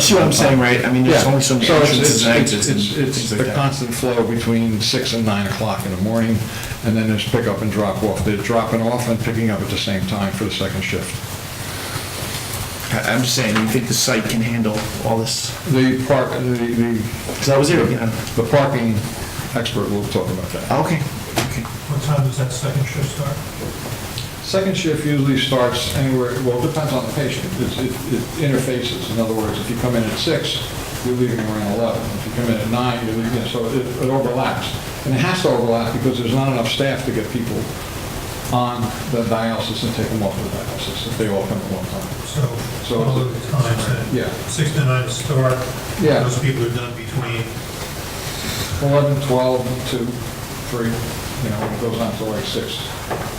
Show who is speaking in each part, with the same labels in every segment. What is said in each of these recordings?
Speaker 1: see what I'm saying, right? I mean,
Speaker 2: Yeah,
Speaker 1: there's
Speaker 2: so
Speaker 1: only so
Speaker 2: it's,
Speaker 1: many entrances and
Speaker 2: it's,
Speaker 1: exits and
Speaker 2: it's, it's
Speaker 1: things like
Speaker 2: the
Speaker 1: that.
Speaker 2: constant flow between six and nine o'clock in the morning, and then there's pickup and drop off. They're dropping off and picking up at the same time for the second shift.
Speaker 1: I- I'm just saying, you think the site can handle all this?
Speaker 2: The park, the, the,
Speaker 1: Because I was there, you know.
Speaker 2: the parking expert will talk about that.
Speaker 1: Okay, okay.
Speaker 3: What time does that second shift start?
Speaker 2: Second shift usually starts anywhere, well, it depends on the patient. It's, it it interfaces. In other words, if you come in at six, you're leaving around eleven. If you come in at nine, you're leaving, so it it overlaps. And it has to overlap because there's not enough staff to get people on the dialysis and take them off the dialysis if they all come at one time.
Speaker 3: So,
Speaker 2: So
Speaker 3: all
Speaker 2: it's-
Speaker 3: of the times that?
Speaker 2: Yeah.
Speaker 3: Six to nine start?
Speaker 2: Yeah.
Speaker 3: Those people are done between,
Speaker 2: Eleven, twelve, two, three, you know, it goes on till like six,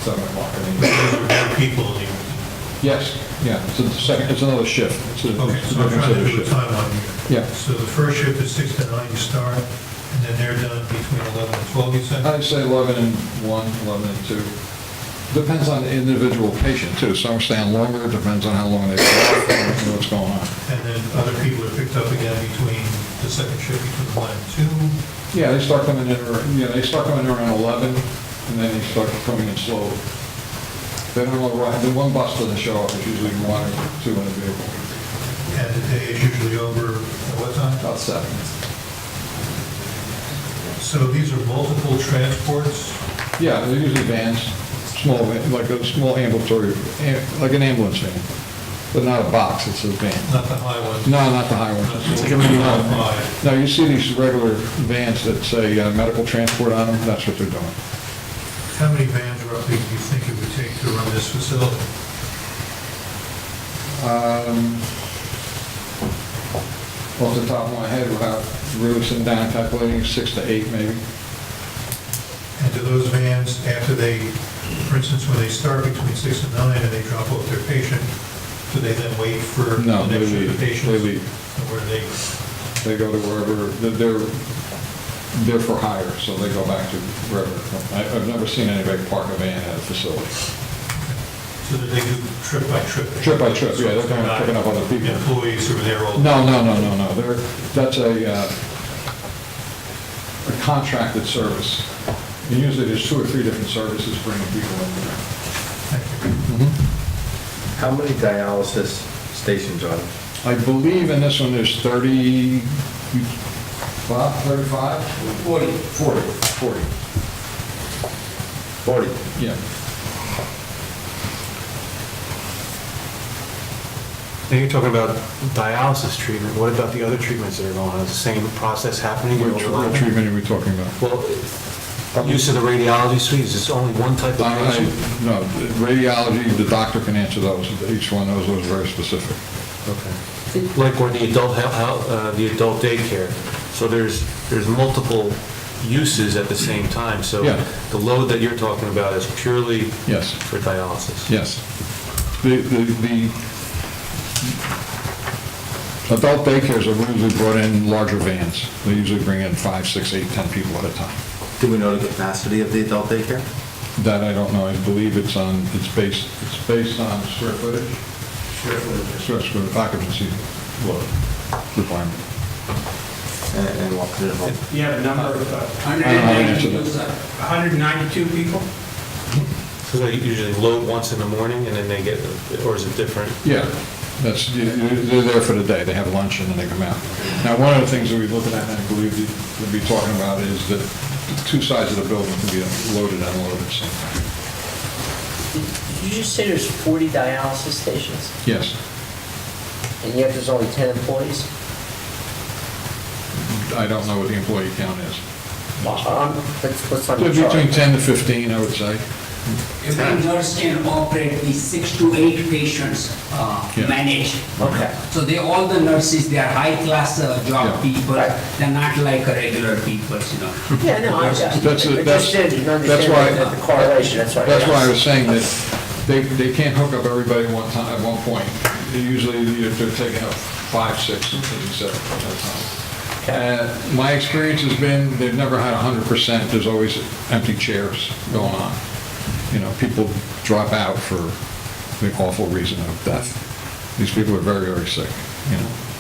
Speaker 2: seven o'clock in the evening.
Speaker 3: those are their people. in the-
Speaker 2: Yes, yeah, it's a second, it's another shift. It's a-
Speaker 3: Okay,
Speaker 2: it's a
Speaker 3: so I'm
Speaker 2: different set of
Speaker 3: trying to do a
Speaker 2: shifts.
Speaker 3: timeline here.
Speaker 2: Yeah.
Speaker 3: So the first shift is six to nine, you start, and then they're done between 11 and 12, you said?
Speaker 2: I'd say 11 and 1, 11 and 2. Depends on the individual patient, too. Some stand longer, depends on how long they've been out, and what's going on.
Speaker 3: And then other people are picked up again between the second shift between 11 and 2?
Speaker 2: Yeah, they start coming in, ar- you know, they start coming in around 11, and then they start coming in slow. They don't know, why- the one bus doesn't show up, it's usually one or two in a vehicle,
Speaker 3: And the day is usually over at what time?
Speaker 2: about seven.
Speaker 3: So these are multiple transports?
Speaker 2: Yeah, they're usually vans, small, van- like a small ambulatory, am- like an ambulance van, but not a box, it's a van.
Speaker 3: Not the high ones?
Speaker 2: No, not the high one.
Speaker 3: That's
Speaker 1: like a mini one.
Speaker 3: Five.
Speaker 2: Now, you see these regular vans that say uh, medical transport on them, that's what they're doing.
Speaker 3: How many vans roughly do you think it would take to run this facility?
Speaker 2: Um, Off the top of my head, without really sitting down and calculating, six to eight maybe.
Speaker 3: And do those vans, after they, for instance, when they start between six and nine and they drop off their patient, do they then wait for
Speaker 2: No,
Speaker 3: the
Speaker 2: they
Speaker 3: next shift
Speaker 2: leave,
Speaker 3: of
Speaker 2: they
Speaker 3: patients?
Speaker 2: leave.
Speaker 3: And Where they,
Speaker 2: They go to wherever, they're, they're for hire, so they go back to wherever. I- I've never seen anybody park a van at a facility.
Speaker 3: so that they do trip by trip?
Speaker 2: Trip by trip, yeah, they're kind of picking up other people.
Speaker 3: Employees who are there all?
Speaker 2: No, no, no, no, no, they're, that's a, uh, a contracted service. And usually there's two or three different services bringing people in there.
Speaker 3: Thank you.
Speaker 2: Mm-hmm.
Speaker 4: How many dialysis stations are there?
Speaker 2: I believe in this one, there's 30, Bob, 35? 40. 40, 40,
Speaker 4: 40.
Speaker 2: yeah.
Speaker 5: Now you're talking about dialysis treatment, what about the other treatments that are going on? Is the same process happening?
Speaker 2: Which which
Speaker 5: Well,
Speaker 2: treatment are we talking about?
Speaker 5: use of the radiology suite, is this only one type
Speaker 2: I-
Speaker 5: of
Speaker 2: I-
Speaker 5: patient?
Speaker 2: No, radiology, the doctor can answer those, each one of those is very specific.
Speaker 5: Okay. Like or the adult, hel- hel- uh, the adult daycare, so there's, there's multiple uses at the same time, so
Speaker 2: Yeah.
Speaker 5: the load that you're talking about is purely
Speaker 2: Yes.
Speaker 5: for dialysis?
Speaker 2: Yes. The, the, the adult daycares are usually brought in larger vans. They usually bring in five, six, eight, 10 people at a time.
Speaker 4: Do we know the capacity of the adult daycare?
Speaker 2: That I don't know, I believe it's on, it's based, it's based on square footage? Square footage. Square footage, occupancy load requirement.
Speaker 4: And and what could it hold?
Speaker 6: You have a number of uh,
Speaker 2: I don't have an answer to
Speaker 6: 192 192 people?
Speaker 5: So they usually load once in the morning and then they get, or is it different?
Speaker 2: Yeah, that's, you- you- they're there for the day, they have lunch and then they come out. Now, one of the things that we're looking at, and I believe you- we'll be talking about, is that the two sides of the building can be loaded and unloaded at the same time.
Speaker 7: Did you just say there's 40 dialysis stations,
Speaker 2: Yes,
Speaker 7: and yet there's only 10 employees?
Speaker 2: I don't know what the employee count is.
Speaker 7: Um, What's what's on the chart?
Speaker 2: Between 10 to 15, I would say.
Speaker 8: If the nurse can operate with six to eight patients uh,
Speaker 2: Yeah.
Speaker 8: managed.
Speaker 7: Okay.
Speaker 8: So they, all the nurses, they are high-class uh,
Speaker 2: Yeah.
Speaker 8: job people,
Speaker 7: Right.
Speaker 8: they're not like a regular people, you know.
Speaker 7: Yeah, no, I I- I
Speaker 2: That's- that's-
Speaker 7: just didn't
Speaker 2: that's why-
Speaker 7: understand the- the correlation, that's why.
Speaker 2: That's why I was saying that they, they can't hook up everybody at one time, at one point. They Usually, they're taking up five, six, and seven at a time. And my experience has been, they've never had hundred percent, there's always empty chairs going on. You know, people drop out for the awful reason of death. These people are very, very sick, you know.